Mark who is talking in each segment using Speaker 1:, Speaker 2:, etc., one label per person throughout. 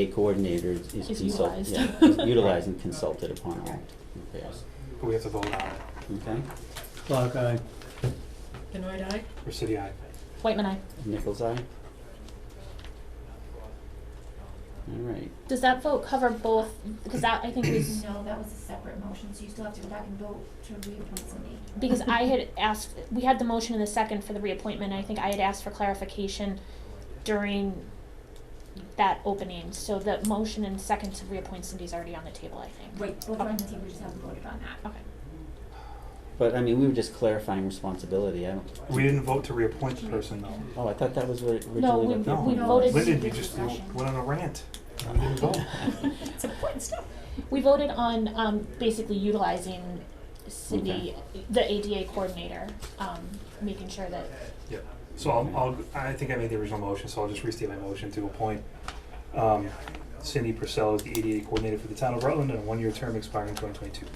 Speaker 1: A coordinator is
Speaker 2: Is
Speaker 1: consulted,
Speaker 2: utilized.
Speaker 1: yeah, is utilized and consulted upon all repairs,
Speaker 3: We have to vote on it.
Speaker 1: okay?
Speaker 4: Clark, aye.
Speaker 5: Benoit Eye?
Speaker 3: Recity, aye.
Speaker 2: Whiteman, I.
Speaker 1: Nichols eye? Alright,
Speaker 2: Does that vote cover both? Because that I think was
Speaker 6: No, that was a separate motion, so you still have to go back and vote to reappoint somebody.
Speaker 2: because I had asked. We had the motion in the second for the reappointment. I think I had asked for clarification during that opening. So the motion and second to reappoint somebody's already on the table. I think.
Speaker 6: Wait, both are on the table, we just haven't voted on that.
Speaker 2: Okay.
Speaker 1: but I mean, we were just clarifying responsibility, I don't,
Speaker 3: We didn't vote to reappoint the person, though.
Speaker 1: oh, I thought that was what it originally.
Speaker 2: No, we-
Speaker 1: what the-
Speaker 3: No.
Speaker 2: we
Speaker 6: No.
Speaker 2: voted.
Speaker 3: Lyndon, you just w- went on a rant. We didn't vote.
Speaker 6: It's important stuff.
Speaker 2: We voted on um, basically utilizing Cindy, the ADA coordinator, um, making sure that
Speaker 3: Yep. So I'll, I'll, I think I made the original motion, so I'll just restate my motion to appoint, um, Cindy Purcell as the ADA coordinator for the town of Rutland and a one-year term expiring twenty twenty-two.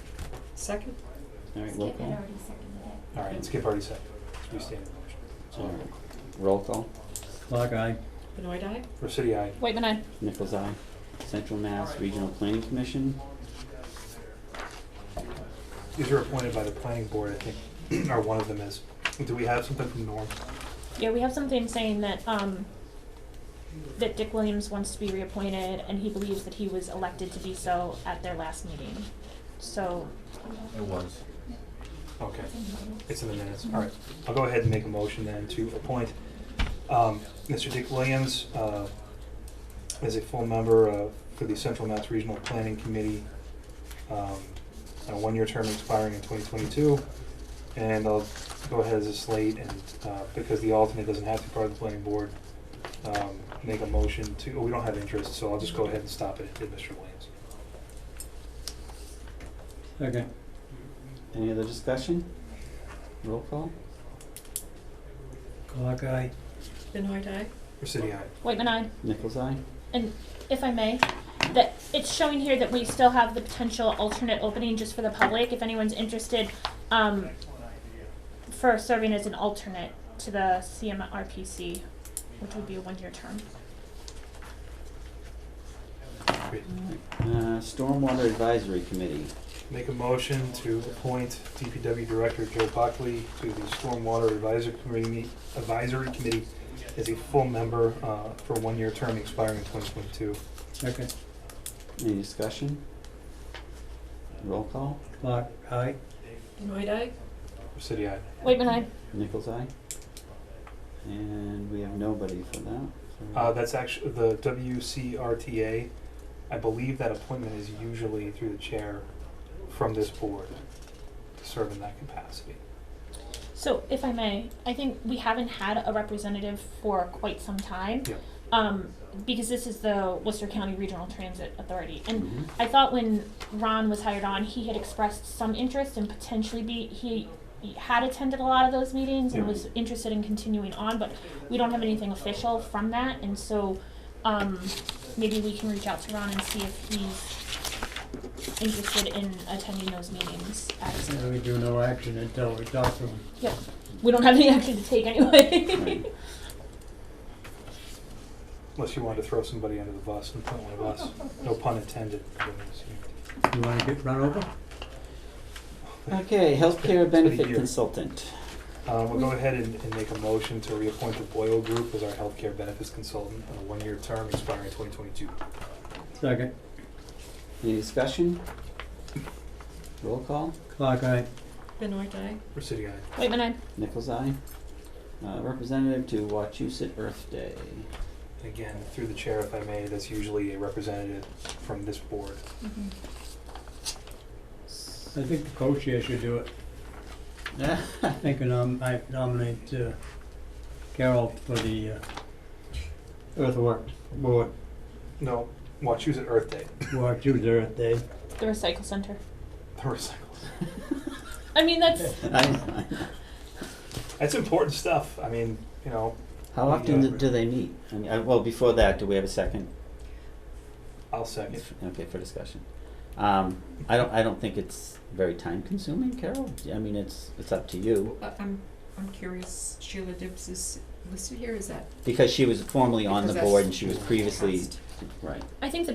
Speaker 5: Second?
Speaker 1: Alright, roll
Speaker 6: Skip had
Speaker 1: call,
Speaker 6: already seconded it.
Speaker 3: All right, Skip already said, let's restate the motion. So,
Speaker 1: alright, roll call,
Speaker 4: Clark, aye.
Speaker 5: Benoit Eye?
Speaker 3: Recity, aye.
Speaker 2: Whiteman, I.
Speaker 1: Nichols eye, Central Mass Regional Planning Commission,
Speaker 3: These are appointed by the planning board, I think, or one of them is. Do we have something from Norm?
Speaker 2: Yeah, we have something saying that, um, that Dick Williams wants to be reappointed, and he believes that he was elected to be so at their last meeting. So,
Speaker 7: It was.
Speaker 3: Okay.
Speaker 6: It's in the minutes.
Speaker 3: It's in the minutes, all right. I'll go ahead and make a motion then to appoint um, Mr. Dick Williams uh, as a full member uh, for the Central Mass Regional Planning Committee, um, a one-year term expiring in 2022. And I'll go ahead as a slate and, uh, because the alternate doesn't have to be part of the planning board, um, make a motion to, oh, we don't have interest, so I'll just go ahead and stop it at Mr. Williams.
Speaker 4: Second.
Speaker 1: any other discussion? Roll call,
Speaker 4: Clark, aye.
Speaker 5: Benoit Eye?
Speaker 3: Recity, aye.
Speaker 2: Whiteman, I.
Speaker 1: Nichols eye?
Speaker 2: And if I may, that it's showing here that we still have the potential alternate opening just for the public, if anyone's interested, um, for serving as an alternate to the CMRPC, which would be a one-year term.
Speaker 3: Great.
Speaker 1: Uh, Stormwater Advisory Committee,
Speaker 3: Make a motion to appoint DPW Director Joe Buckley to the Stormwater Advisory Committee, Advisory Committee as a full member uh, for a one-year term expiring in 2022.
Speaker 4: Second.
Speaker 1: any discussion? Roll call,
Speaker 4: Clark, aye.
Speaker 5: Benoit Eye?
Speaker 3: City, aye.
Speaker 2: Whiteman, I.
Speaker 1: Nichols eye? And we have nobody for that, so-
Speaker 3: Uh, That's actually, the WCRTA, I believe that appointment is usually through the chair from this board to serve in that capacity.
Speaker 2: So, if I may, I think we haven't had a representative for quite some time.
Speaker 3: Yeah.
Speaker 2: Um, because this is the Worcester County Regional Transit Authority, and
Speaker 1: Mhm.
Speaker 3: Mm-hmm.
Speaker 2: I thought when Ron was hired on, he had expressed some interest in potentially be, he he had attended a lot of those meetings and
Speaker 3: Yeah.
Speaker 2: was interested in continuing on, but we don't have anything official from that, and so, um, maybe we can reach out to Ron and see if he's interested in attending those meetings as
Speaker 4: And we do no action until we talk to him.
Speaker 2: yeah, we don't have any action to take anyway.
Speaker 1: Right.
Speaker 3: Unless you wanted to throw somebody under the bus and put one of us, no pun intended.
Speaker 4: You wanna get run over?
Speaker 1: Okay, healthcare benefit
Speaker 3: year.
Speaker 1: consultant.
Speaker 3: Uh, we'll go ahead and, and make a motion to reappoint the Boyle Group as our healthcare benefits consultant on a one-year term expiring twenty twenty-two.
Speaker 4: Second.
Speaker 1: Any discussion? Roll call,
Speaker 4: Clark, aye.
Speaker 5: Benoit Eye?
Speaker 3: Recity, aye.
Speaker 2: Whitman, I.
Speaker 1: Nichols eye? Uh, representative to Wachusett Earth Day.
Speaker 3: And again, through the chair, if I may, that's usually a representative from this board.
Speaker 1: Mm-hmm.
Speaker 4: I think the co-chair should do it. I think I nom- I nominate uh, Carol for the uh, earthwork board,
Speaker 3: No, watch, use it Earth Day,
Speaker 4: War Tuesday Earth Day.
Speaker 2: The recycle center.
Speaker 3: the recycle.
Speaker 2: I mean, that's
Speaker 1: I- I-
Speaker 3: That's important stuff. I mean, you know,
Speaker 1: How often do- do they meet? I mean, I- well, before that, do we have a second?
Speaker 3: I'll second.
Speaker 1: Okay, for discussion. Um, I don't, I don't think it's very time consuming, Carol. I mean, it's, it's up to you.
Speaker 5: Uh, I'm, I'm curious, Sheila Dibbs is listed here, is that?
Speaker 1: Because she was formerly on the
Speaker 5: Because that's-
Speaker 1: board and she was previously
Speaker 5: Trust.
Speaker 8: right.
Speaker 1: I think the